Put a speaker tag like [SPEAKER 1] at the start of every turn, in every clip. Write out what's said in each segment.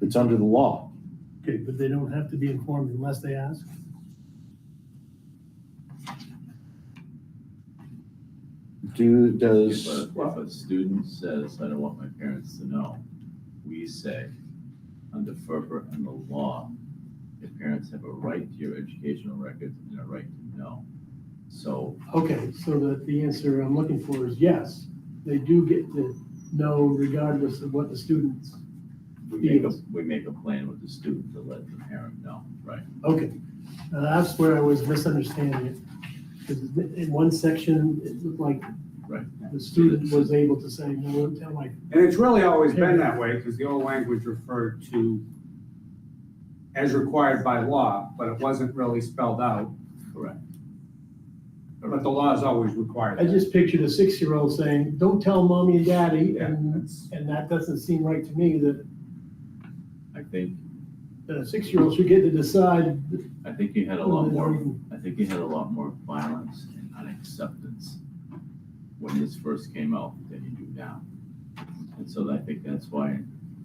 [SPEAKER 1] It's under the law.
[SPEAKER 2] Okay, but they don't have to be informed unless they ask?
[SPEAKER 1] Do,
[SPEAKER 3] If
[SPEAKER 1] does,
[SPEAKER 3] a, if a student says, I don't want my parents to know, we say, under FERPA and the law, the parents have a right to your educational records and a right to know. So
[SPEAKER 2] Okay, so that the answer I'm looking for is yes, they do get to know regardless of what the students,
[SPEAKER 3] we make a, we make a plan with the student to let the parent know, right?
[SPEAKER 2] okay. Now, that's where I was misunderstanding it. Because in one section, it looked like
[SPEAKER 3] Right.
[SPEAKER 2] the student was able to say, no, don't tell my,
[SPEAKER 4] And it's really always been that way, because the old language referred to as required by law, but it wasn't really spelled out.
[SPEAKER 3] Correct.
[SPEAKER 4] But the law is always required.
[SPEAKER 2] I just pictured a six-year-old saying, don't tell mommy and daddy,
[SPEAKER 4] Yeah,
[SPEAKER 2] and,
[SPEAKER 4] that's-
[SPEAKER 2] and that doesn't seem right to me, that,
[SPEAKER 3] I think,
[SPEAKER 2] that a six-year-old should get to decide.
[SPEAKER 3] I think you had a lot more
[SPEAKER 1] Mm-hmm.
[SPEAKER 3] I think you had a lot more violence and unacceptance when this first came out than you do now. And so I think that's why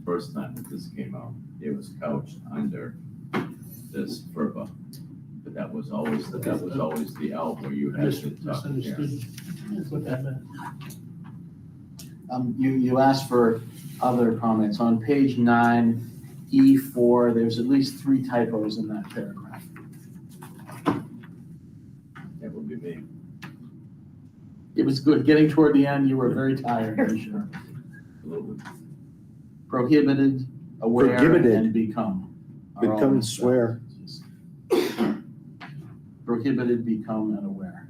[SPEAKER 3] first time that this came out, it was couched under this FERPA. But that was always, that was always the out where you
[SPEAKER 2] I
[SPEAKER 3] had
[SPEAKER 2] just
[SPEAKER 3] to talk to parents.
[SPEAKER 2] misunderstood what that meant.
[SPEAKER 5] Um, you, you asked for other comments. On page nine, E four, there's at least three typos in that paragraph.
[SPEAKER 3] That would be me.
[SPEAKER 5] It was good. Getting toward the end, you were very tired, I'm sure.
[SPEAKER 3] A little bit.
[SPEAKER 5] Prohibited, aware,
[SPEAKER 1] Prohibited.
[SPEAKER 5] and become. are all
[SPEAKER 1] become
[SPEAKER 5] mixed up.
[SPEAKER 1] swear.
[SPEAKER 5] Prohibited, become, and aware.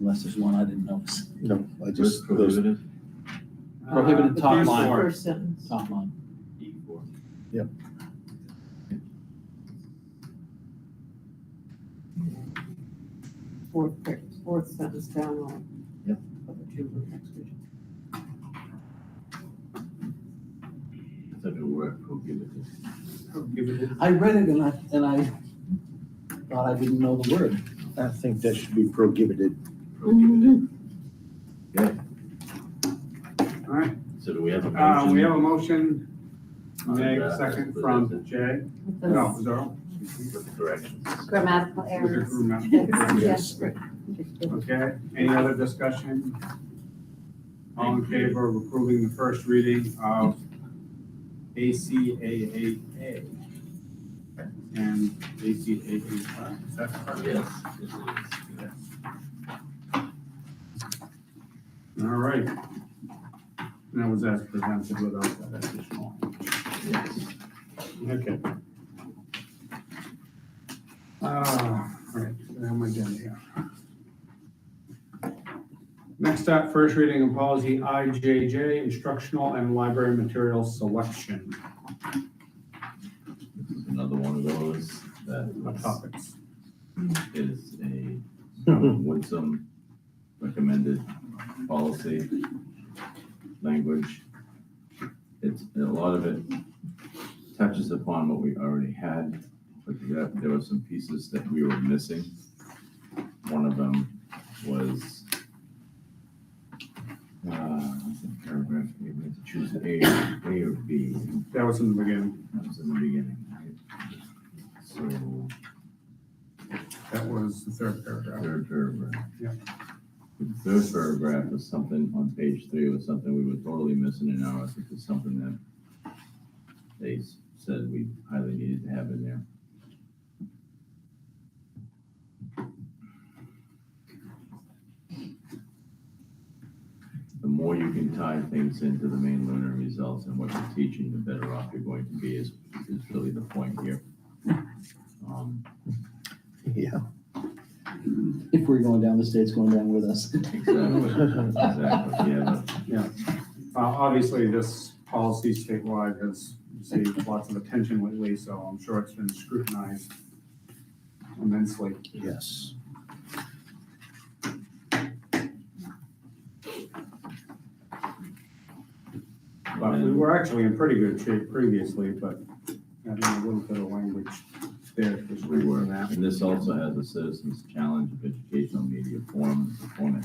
[SPEAKER 5] Unless there's one I didn't notice.
[SPEAKER 1] No, I
[SPEAKER 3] Risk
[SPEAKER 1] just, those,
[SPEAKER 3] prohibited,
[SPEAKER 4] Uh,
[SPEAKER 5] Prohibited
[SPEAKER 4] the
[SPEAKER 5] top
[SPEAKER 4] first
[SPEAKER 5] line.
[SPEAKER 4] word.
[SPEAKER 6] First sentence.
[SPEAKER 5] Top line.
[SPEAKER 3] E four.
[SPEAKER 6] fourth, fourth sentence down on.
[SPEAKER 5] Yep.
[SPEAKER 6] Of the children next to each
[SPEAKER 3] It's a new word, prohibited.
[SPEAKER 4] Give it-
[SPEAKER 5] I read it and I, and I thought I didn't know the word.
[SPEAKER 1] I think that should be prohibited.
[SPEAKER 6] Mm-hmm.
[SPEAKER 3] Prohibited. Okay,
[SPEAKER 4] All right,
[SPEAKER 3] so do we have a
[SPEAKER 4] uh,
[SPEAKER 3] motion?
[SPEAKER 4] we have a motion,
[SPEAKER 3] on
[SPEAKER 4] Meg,
[SPEAKER 3] that?
[SPEAKER 4] second from Jay,
[SPEAKER 6] other.
[SPEAKER 4] no, Zoro.
[SPEAKER 3] With corrections.
[SPEAKER 6] Grammatical
[SPEAKER 4] Was it
[SPEAKER 6] errors.
[SPEAKER 4] grammatical?
[SPEAKER 6] Yes.
[SPEAKER 4] Okay, any other discussion? All in favor of approving the first reading of ACAAA? And ACAA, is that correct?
[SPEAKER 3] Yes, it is, yes.
[SPEAKER 4] All right. And that was as presented without that additional.
[SPEAKER 3] Yes.
[SPEAKER 4] Okay. Uh, all right, where am I down here? Next up, first reading of policy IJJ, instructional and library material selection
[SPEAKER 3] This is Another one of those
[SPEAKER 4] of
[SPEAKER 3] that
[SPEAKER 4] topics.
[SPEAKER 3] is a Woodsum recommended policy language. It's, a lot of it touches upon what we already had, but there there were some pieces that we were missing. One of them was uh, what's that paragraph, we had to choose A, A or B.
[SPEAKER 4] That was in the beginning.
[SPEAKER 3] That was in the beginning, right? So,
[SPEAKER 4] That was the third paragraph.
[SPEAKER 3] third paragraph.
[SPEAKER 4] Yeah.
[SPEAKER 3] The third paragraph was something on page three was something we were totally missing in ours, which is something that they s- said we highly needed to have in there. The more you can tie things into the main learner results and what you're teaching, the better off you're going to be is, is really the point here. Um,
[SPEAKER 1] Yeah.
[SPEAKER 5] If we're going down, the state's going down with us.
[SPEAKER 3] Exactly, exactly, yeah.
[SPEAKER 4] Uh, obviously, this policy statewide has received lots of attention lately, so I'm sure it's been scrutinized immensely.
[SPEAKER 1] Yes.
[SPEAKER 4] But we were actually in pretty good shape previously, but having a little bit of language there for
[SPEAKER 3] We were,
[SPEAKER 4] that.
[SPEAKER 3] and this also has a citizens challenge of educational media forum, the format